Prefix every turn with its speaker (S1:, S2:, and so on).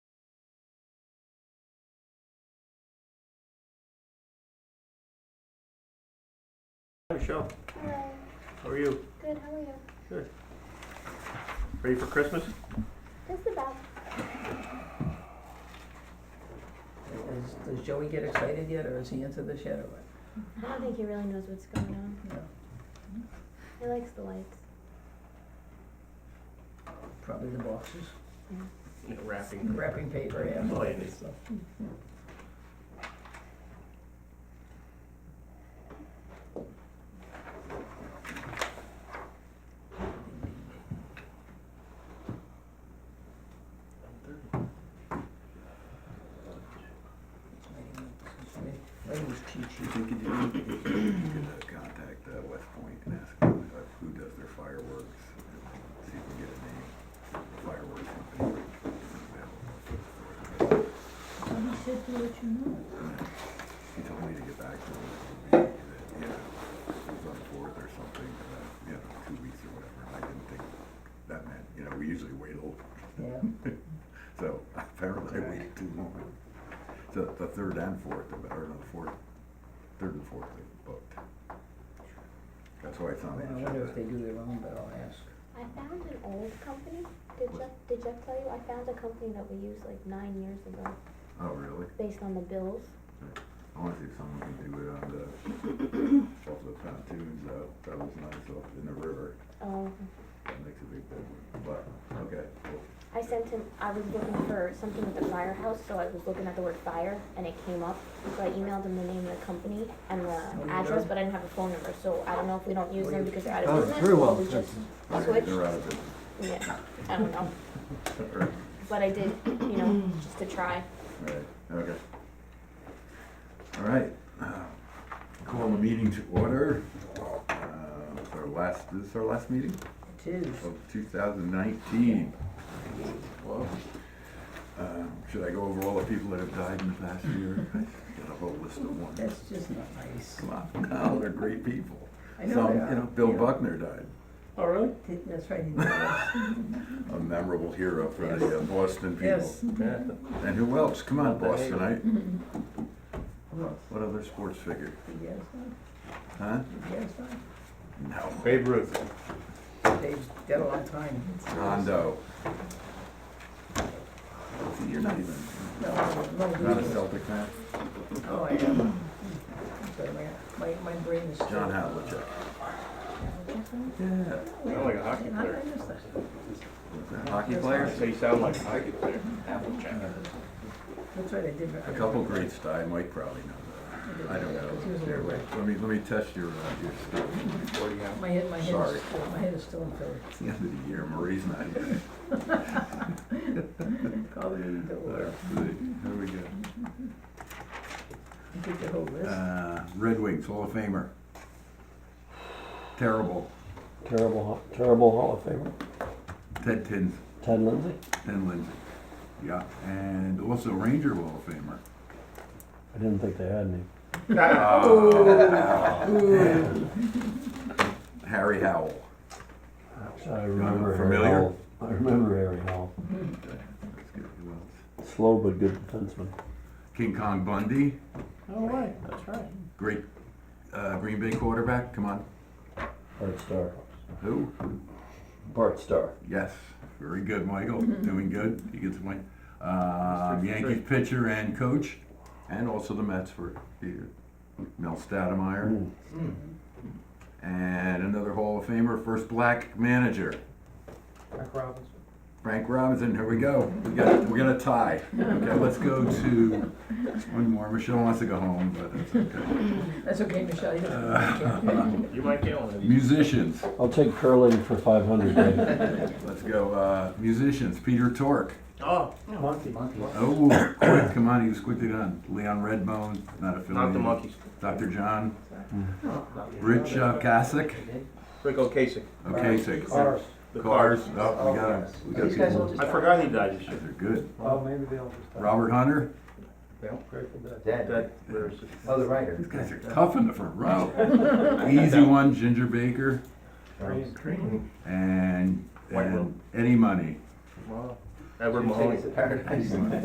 S1: Michelle, how are you?
S2: Good, how are you?
S1: Ready for Christmas?
S2: Just about.
S3: Is, does Joey get excited yet, or is he into this yet, or what?
S2: I don't think he really knows what's going on.
S3: No,
S2: He likes the lights.
S3: probably the boxes,
S1: No,
S3: the
S1: Wrapping.
S3: wrapping paper, yeah.
S1: Oh, yeah, it is.
S3: So, Ladies cheat sheet.
S4: I think you do need to contact uh, West Point and ask them uh, who does their fireworks, and see if we can get a name, for fireworks company.
S5: Somebody said do what you know.
S4: He told me to get back to him, that, you know, it was on the fourth or something, uh, you know, two weeks or whatever, I didn't think that meant, you know, we usually wait a little,
S3: Yeah,
S4: so apparently I waited too long. So the third and fourth, or no, the fourth, third and fourth, they booked. That's why it's on the
S3: I
S4: agenda.
S3: wonder if they do their own, but I'll ask.
S2: I found an old company. Did Jeff, did Jeff tell you? I found a company that we used like nine years ago
S4: Oh, really?
S2: based on the bills.
S4: I wanna see if someone can do it on the, off the pontoons, uh, that was nice off in the river,
S2: Um,
S4: that makes a big difference, but, okay, cool.
S2: I sent him, I was looking for something with the firehouse, so I was looking at the word fire and it came up. So I emailed him the name of the company and
S3: Oh,
S2: the
S3: you
S2: address,
S3: did?
S2: but I didn't have a phone number, so I don't know if we don't use
S3: Well,
S2: them
S3: you-
S2: because they're out
S6: Oh,
S2: of business.
S6: very
S2: or
S6: well,
S2: we just-
S4: Alright,
S2: Switch?
S4: They're out of business.
S2: Yeah, I don't know.
S4: Alright,
S2: But I did, you know, just to try.
S4: alright, okay. Alright, uh, call the meeting to order, uh, it's our last, this is our last meeting?
S3: It is.
S4: of 2019. Well, um, Should I go over all the people that have died in the past year? Got a whole list of ones.
S3: That's just not nice.
S4: Come on, now, they're great people.
S3: I know
S4: Some,
S3: they are.
S4: you know, Bill
S3: Yeah.
S4: Buckner died,
S3: Oh, really? Did- That's right. he did.
S4: a memorable hero for the uh, Boston people.
S3: Yes. Mm-hmm.
S1: Yeah.
S4: And who else? Come on,
S1: Not that
S4: Boston, I,
S3: Who else?
S4: what other sports figure?
S3: Did Yaz die?
S4: Huh?
S3: Did Yaz die?
S4: No.
S1: Babe Ruth.
S3: Dave's dead a long time.
S4: Rondo. See, You're not even,
S3: No, no, no.
S4: not a Celtic fan?
S3: Oh, I am. I'm sorry, my- My, my brain is.
S4: John
S3: still-
S4: Havlicek. Yeah.
S1: Sound like a hockey
S3: How did I
S1: player.
S3: miss that?
S4: Hockey
S3: That's
S4: player?
S1: So you sound like a hockey player.
S3: That's right, I did.
S4: A couple greats died, Mike probably knows that. I don't know. Here, wait, let me, let me test your, uh, your stuff.
S1: Forty out.
S3: My head, my head
S4: Sorry.
S3: is still, my head is still in Philly.
S4: It's the end of the year, Marie's not here. Mm,
S3: Call the meeting to order.
S4: Let's see, Here we go.
S3: You Did the whole list?
S4: Uh, Red Wings Hall of Famer. Terrible.
S6: Terrible, Hall- terrible Hall of Famer,
S4: Ted Tins,
S6: Ted Lindsay.
S4: Ted Lindsay. Yeah, and also Ranger Hall of Famer.
S6: I didn't think they had any.
S4: Harry Howell.
S6: I remember Harry
S4: familiar?
S6: Howell. I remember Harry Howell.
S4: Okay, that's good. Who else?
S6: Slow but good defenseman.
S4: King Kong Bundy,
S1: Oh, right, that's right.
S4: great, uh, Green Bay quarterback, come on.
S6: Bart Starr.
S4: Who?
S6: Bart Starr.
S4: Yes, very good, Michael, doing good, he gets a win. Um, Yankees pitcher and coach, and also the Mets for here, Mel
S6: Mm.
S4: Stoudemire. And another Hall of Famer, first black manager,
S1: Mark Robinson.
S4: Frank Robinson, here we go, we got, we got a tie. Okay, let's go to, one more, Michelle wants to go home, but that's okay.
S3: That's okay, Michelle, you
S4: uh,
S3: don't.
S1: You might get one of these.
S4: Musicians,
S6: I'll take curling for 500, Dave.
S4: let's go, uh, musicians, Peter Tork.
S1: Oh. Monkey.
S4: Oh, quick, come on, he was quickly done. Leon Redbone, not affiliated.
S1: Not the monkeys.
S4: Dr. John, Rich uh, Kasich,
S1: Rick Ocasek.
S4: Okasik.
S7: Cars.
S1: The
S4: Cars, oh, we got him. We got
S3: These guys all
S4: people.
S3: just.
S1: I forgot he died this
S4: They're
S1: year.
S4: good.
S7: Well, maybe they'll just.
S4: Robert Hunter,
S7: Grateful Dead.
S1: That,
S8: Dead.
S1: where is it?
S8: Oh, the writer.
S4: these guys are tough in the front row. Easy one, Ginger Baker,
S7: Green.
S4: and,
S1: White Will.
S4: and Eddie Money.
S1: Edward Mahoney.
S8: Paradise.